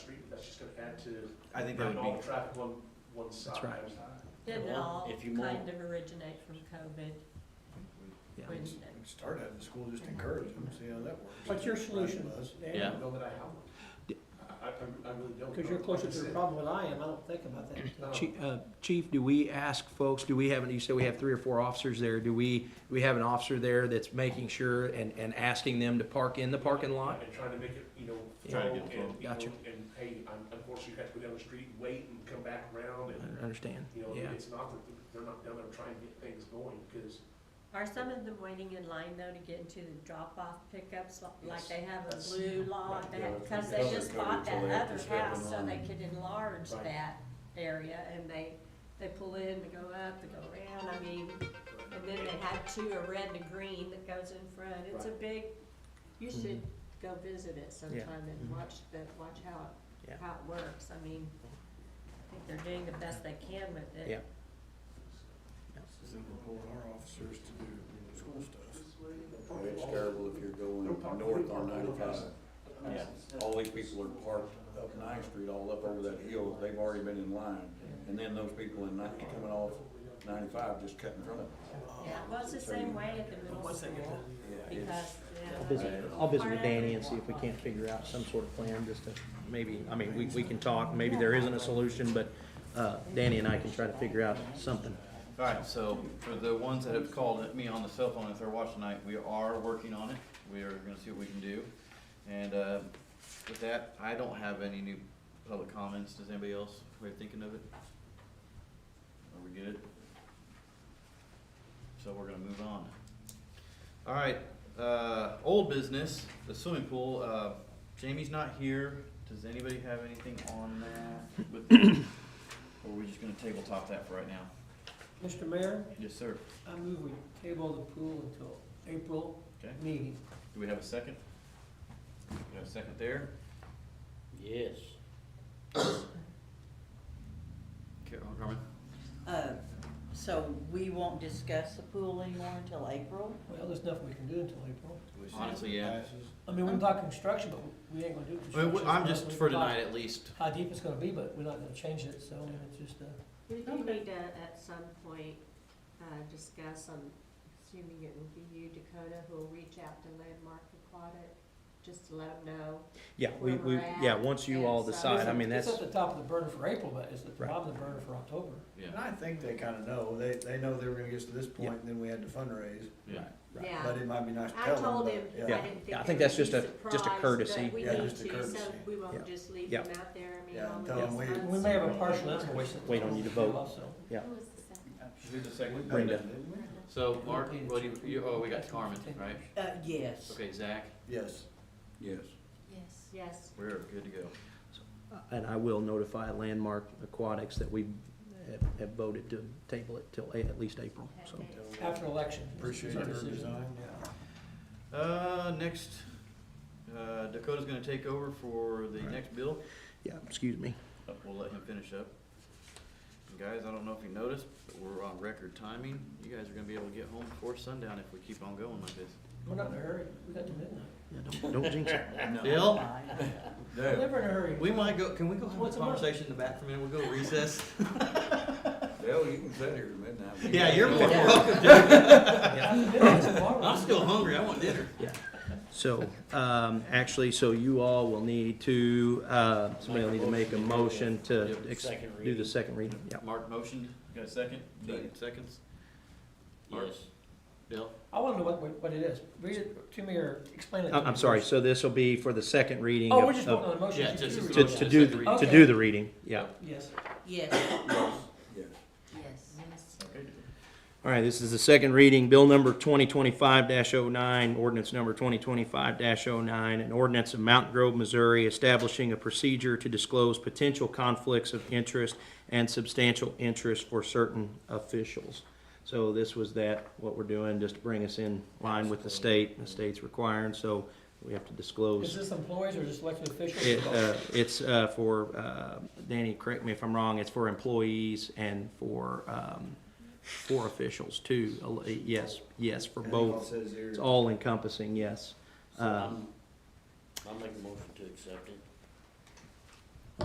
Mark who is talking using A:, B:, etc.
A: that to
B: I think that
A: not
B: would
A: all
B: be,
A: traffic on one side.
B: right.
C: Didn't it
D: Well,
C: all
D: if you mow-
C: kind of originate from COVID
B: yeah.
C: when
E: Start at the school, just encourage them, see how that works.
F: What's your solution,
E: Right, bus.
F: Dan?
A: I
D: Yeah.
A: don't know that I have one. I, I- I really don't.
F: Because you're
A: know.
F: closer
A: Like I
F: to the
A: said,
F: problem than I am, I don't think about that.
A: no,
B: Chief, uh, Chief, do we ask folks, do we have, you said we have three or four officers there, do we, we have an officer there that's making sure and, and asking them to park in the parking lot?
A: And trying to make it, you know,
B: Yeah.
A: flow
D: Trying to
A: and,
D: get
A: you know,
B: Gotcha.
A: and hey, un- unfortunately, you have to go down the street, and wait and come back around and,
B: I understand,
A: you know,
B: Uh, yeah.
A: it's not that they're not down there trying to get things going because
C: Are some of them waiting in line though to get into the drop-off pickups li- like
A: Yes.
C: they have a
A: That's-
C: blue lot?
A: yeah,
C: Because they
D: that's
C: just
D: covered
C: bought that
D: till they have to
C: other
D: step in
C: house so they
D: line.
C: could enlarge
A: Right.
C: that area and they, they pull in to go up, to go around, I mean, and then they had two, a red and a green that goes in front. It's a big, you
B: Mm-hmm.
C: should go visit it sometime and watch the, watch how
B: Yeah.
C: it, how it works. I mean, I think they're doing the best they can with it.
B: Yeah.
E: Then we're pulling our officers to do school stuff.
G: It's terrible if you're going north on ninety-five.
D: Yeah.
G: All these people are parked up Ninth Street, all up over that hill, they've already been in line. And then those people in ninety, coming off ninety-five just cut in front of them.
C: Yeah, well, it's the same way at the middle school.
G: Yeah,
C: Because,
G: it's-
C: yeah.
B: I'll visit with Danny and see if we can't figure out some sort of plan, just to, maybe, I mean, we, we can talk, maybe there isn't a solution, but, uh, Danny and I can try to figure out something.
D: All right, so for the ones that have called at me on the cell phone, if they're watching tonight, we are working on it. We are gonna see what we can do. And, uh, with that, I don't have any new public comments. Does anybody else, we are thinking of it? Are we good? So we're gonna move on. All right, uh, old business, the swimming pool, uh, Jamie's not here. Does anybody have anything on that? with- Or are we just gonna tabletop that for right now?
F: Mr. Mayor,
D: Yes, sir.
F: I move we table the pool until April
D: Okay,
F: meeting.
D: do we have a second? We have a second there?
G: Yes.
D: Carol, Carmen?
H: Uh, So we won't discuss the pool anymore until April?
F: Well, there's nothing we can do until April.
D: Honestly, yeah.
F: I mean, we can talk construction, but we ain't gonna do
D: I mean,
F: construction.
D: we- Uh, I'm just,
F: We
D: for
F: can talk
D: tonight at least,
F: How deep it's gonna be, but we're not gonna change it, so I mean, it's just, uh,
C: We do need to, at some point, uh, discuss, I'm assuming it will be you, Dakota, who will reach out to Landmark Aquatic, just to let them know.
B: Yeah, we, we, yeah, once you all decide, I mean,
F: it's
B: that's,
F: at the top of the burner for April, but it's at the
B: Right.
F: bottom of the burner for October.
D: yeah,
E: And I think they kinda know, they, they know they were gonna get to this point, and then we had to fundraise,
D: yeah.
E: but
C: Yeah,
E: it might be nice to
C: I
E: tell them.
C: told
E: but-
C: him, I
E: yeah.
C: didn't think.
B: Yeah, I
C: it
B: think that's
C: would be
B: just a- just a
C: surprised,
B: courtesy.
C: but We
E: Yeah,
C: need
E: just a
C: to, so
E: courtesy.
C: we
B: Yeah.
C: won't just leave
B: Yeah.
C: them out there, I mean,
E: Yeah,
C: all
E: tell
C: the.
E: 'em we-
F: We may have a partial invoice. at the
B: Wait, don't need to vote.
F: Also.
D: Who's the second?
B: Brenda.
D: So, Mark, what do you, you, oh, we got Carmen, right?
H: Uh, yes.
D: Okay, Zach,
E: Yes,
G: Yes.
C: Yes. Yes.
D: we're good to go.
B: and I will notify Landmark Aquatics that we have- have voted to table it till a- at least April, so.
F: After election.
E: appreciate
F: It's our
E: your
F: decision.
E: design,
D: Uh, next, uh, Dakota's gonna take over for the next bill.
B: Yeah, excuse me.
D: Uh, We'll let him finish up. And Guys, I don't know if you noticed, but we're on record timing. You guys are gonna be able to get home before sundown if we keep on going like this.
F: We're not in a hurry, we got to midnight.
B: Yeah, don't, don't jinx it.
D: Bill?
H: Fine.
F: We're never in a hurry.
D: We might go, can we go have a
F: What's the matter?
D: conversation in the back for a minute? We'll go recess.
G: Well, you can sit here till midnight.
D: Yeah, you're more than welcome.
F: After midnight, it's tomorrow.
D: I'm still hungry. I want dinner.
B: So, um, actually, so you all will need to, uh, somebody will need to make a motion to
D: Yep.
B: ex-
G: Second
B: do
G: reading.
B: the second reading, yeah.
D: Mark motioned. Got a second?
G: Second.
D: Seconds? Yes.
G: Yes.
D: Bill?
F: I wanna know what, what it is. Read it to me or explain it. to
B: I'm, I'm
F: me
B: sorry,
F: first.
B: so this will be for the second reading
F: Oh, we're just
B: of,
F: voting
B: of-
F: on the motion.
D: Yeah, just-
B: to, to do, the- to do the reading, yeah.
F: Yes.
H: Yes,
G: Yes.
H: yes.
D: Okay.
B: All right, this is the second reading, bill number twenty twenty-five 9 ordinance number twenty twenty-five 9 an ordinance of Mountain Grove, Missouri, establishing a procedure to disclose potential conflicts of interest and substantial interest for certain officials. So this was that, what we're doing, just to bring us in line with the state, the state's requiring, so we have to
F: Is
B: disclose.
F: this employees or just elected
B: It,
F: officials?
B: uh, it's, uh, for, uh, Danny, correct me if I'm wrong, it's for employees and for, um, for officials too, Uh, yes, yes, for
E: yeah. And it all
B: both.
E: says here-
B: It's all encompassing, yes. Uh,
G: I'll make a motion to accept it.